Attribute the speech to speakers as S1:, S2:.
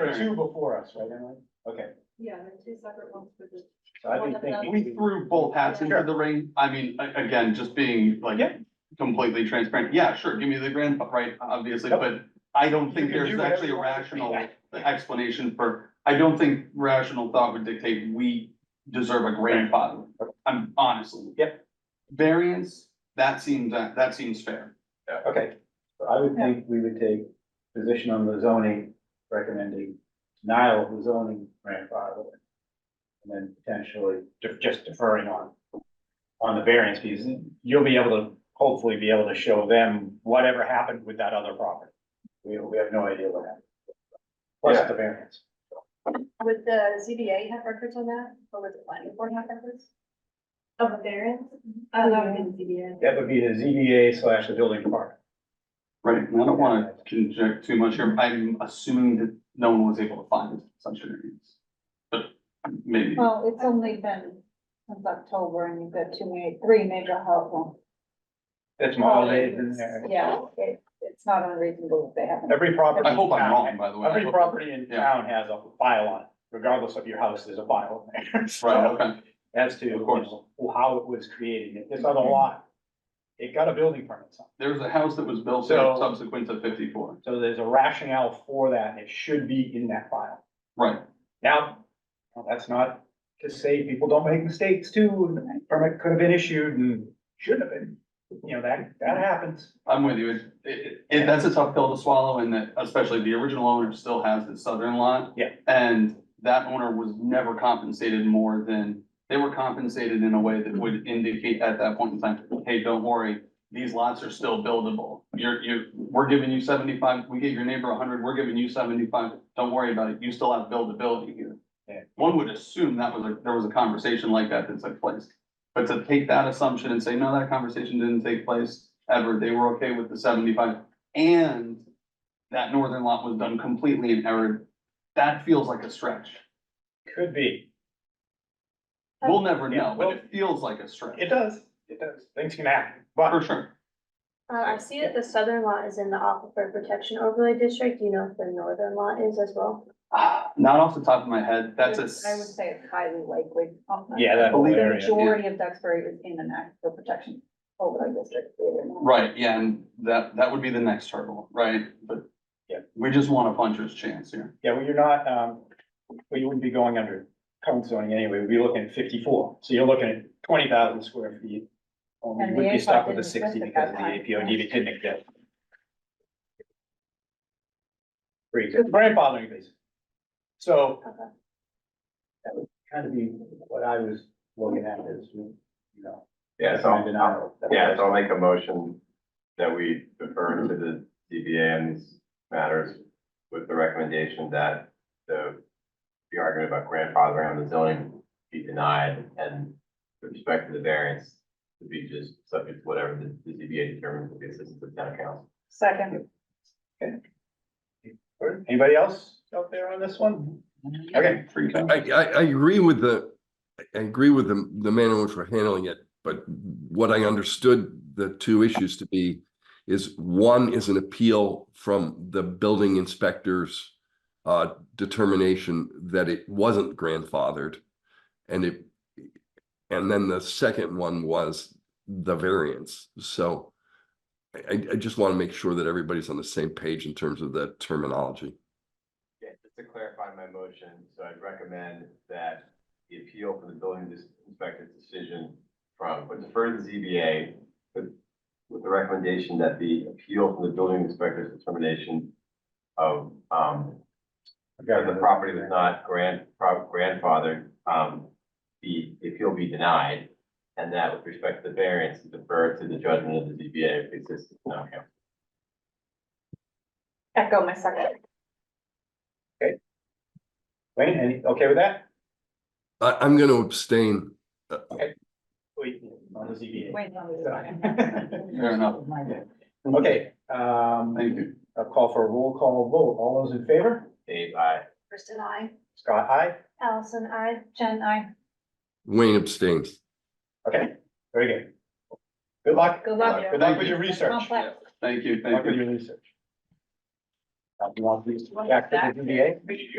S1: There are two before us, right, Emily? Okay,
S2: Yeah, there are two separate ones for the.
S1: so I've been
S2: One of them.
S1: thinking.
S3: We threw both hats into the ring. I mean, a- again, just being like
S1: Yeah.
S3: completely transparent. Yeah, sure, give me the grand, right, obviously,
S1: Yep.
S3: but I don't
S1: You can
S3: think
S1: do
S3: there's
S1: whatever
S3: actually
S1: you
S3: a
S1: want.
S3: rational explanation for, I don't think rational thought would dictate we deserve a grandfather. I'm honestly.
S1: Yep.
S3: Variance, that seems, uh, that seems fair.
S1: Okay, so I would think we would take position on the zoning, recommending denial of the zoning grandfather. And then potentially de- just deferring on, on the variance because You'll be able to, hopefully be able to show them whatever happened with that other property. We, we have no idea what happened. Plus the variance.
S2: Would the ZBA have records on that, or would the planning board have records? Of the variance?
S4: Mm-hmm.
S2: I don't know, in the ZBA.
S1: That would be the ZBA slash the building department.
S3: Right, and I don't wanna conject too much here, I'm assuming that no one was able to find such an variance. But maybe,
S5: Well, it's only been since October and you've got two, ma- three major health.
S1: That's my
S5: Oh,
S1: holidays in there.
S5: Yeah, it, it's not unreasonable if they haven't.
S1: Every property.
S3: I hope
S1: in
S3: I'm
S1: town-
S3: wrong, by the way. I
S1: Every
S3: hope-
S1: property in
S3: Yeah.
S1: town has a file on it, regardless of your house, there's a file in there.
S3: Right,
S1: So
S3: okay.
S1: as to, you
S3: Of course. Mm-hmm.
S1: know, how it was created, If this other lot, it got a building permit, so-
S3: There was a house that was built
S1: So-
S3: subsequent to fifty-four.
S1: so there's a rationale for that, and it should be in that file.
S3: Right,
S1: Now, well, that's not to say people don't make mistakes too, and the permit could have been issued and shouldn't have been, you know, that, that happens.
S3: I'm with you. It, it, it- that's a tough pill to swallow and that especially the original owner still has the southern lot.
S1: Yeah.
S3: And that owner was never compensated more than, they were compensated in a way that would indicate at that point in time, hey, don't worry, these lots are still buildable. You're, you, we're giving you seventy-five, we get your neighbor hundred, we're giving you seventy-five, don't worry about it, you still have buildability here.
S1: Yeah.
S3: One would assume that was a, there was a conversation like that that took place. But to take that assumption and say, no, that conversation didn't take place ever, they were okay with the seventy-five, and that northern lot was done completely in error, that feels like a stretch.
S1: Could be,
S3: We'll never
S1: Yeah,
S3: know, but it feels like a stretch,
S1: it does, it does, things can happen,
S3: for
S1: but
S3: sure.
S4: Uh, I see that the southern lot is in the aquifer protection overlay district. Do you know if the northern lot is as well?
S3: Ah, Not off the top of my head, that's a,
S5: I would
S3: s-
S5: say it's highly likely.
S1: Yeah, that whole
S5: The
S1: area,
S5: majority of Duxbury is in an aquifer protection overlay district. believe it or not.
S3: right, yeah, and that, that would be the next hurdle, right? But
S1: Yeah.
S3: we just want a puncher's chance here.
S1: yeah, well, you're not, um, well, you wouldn't be going under current zoning anyway, we'd be looking at fifty-four, so you're looking at twenty thousand square feet. Only
S5: And
S1: would
S5: the
S1: be stuck
S5: APOD
S1: with a
S5: didn't exist
S1: sixty
S5: at
S1: because of
S5: that
S1: the
S5: time.
S1: APOD that didn't exist. Great, grandfathering basis. So.
S4: Okay.
S1: That would kind of be what I was looking at is, you know.
S6: Yeah,
S1: my
S6: so,
S1: denial.
S6: yeah, so I'll make a motion that we defer to the DBA on these matters with the recommendation that the, the argument about grandfathering on the zoning be denied and with respect to the variance to be just subject to whatever the, the DBA determines with the assistance of town council.
S5: Second,
S1: Anybody else out there on this one? Okay,
S3: Free time.
S7: I, I, I agree with the, I agree with the, the manner in which we're handling it, but what I understood the two issues to be is one is an appeal from the building inspector's uh, determination that it wasn't grandfathered. And it, and then the second one was the variance. So I, I- I just want to make sure that everybody's on the same page in terms of the terminology.
S6: Yeah, just to clarify my motion, so I'd recommend that the appeal for the building dis- inspector's decision from, but defer to the ZBA, but with the recommendation that the appeal from the building inspector's determination of, um, that the property was not grand, pro- grandfathered, um, be, the appeal be denied, and that with respect to the variance, defer to the judgment of the ZBA if existing, okay.
S5: echo my second.
S1: Wayne, any, okay with that?
S7: I, I'm going to abstain. Uh,
S1: Wait, on the ZBA.
S5: Wait, no, this is
S3: Fair enough.
S1: Okay, um,
S3: Thank you.
S1: a call for a roll call vote. All those in favor?
S6: Dave, I.
S4: Kristen, I.
S1: Scott, aye.
S4: Allison, I.
S5: Jen, I,
S7: Wayne abstains.
S1: Okay, very good. Good luck.
S5: good luck.
S1: Good luck with your research.
S5: Complex.
S3: Thank you,
S1: Good luck
S3: thank
S1: with
S3: you.
S1: your research. Uh, You want these back to the ZBA?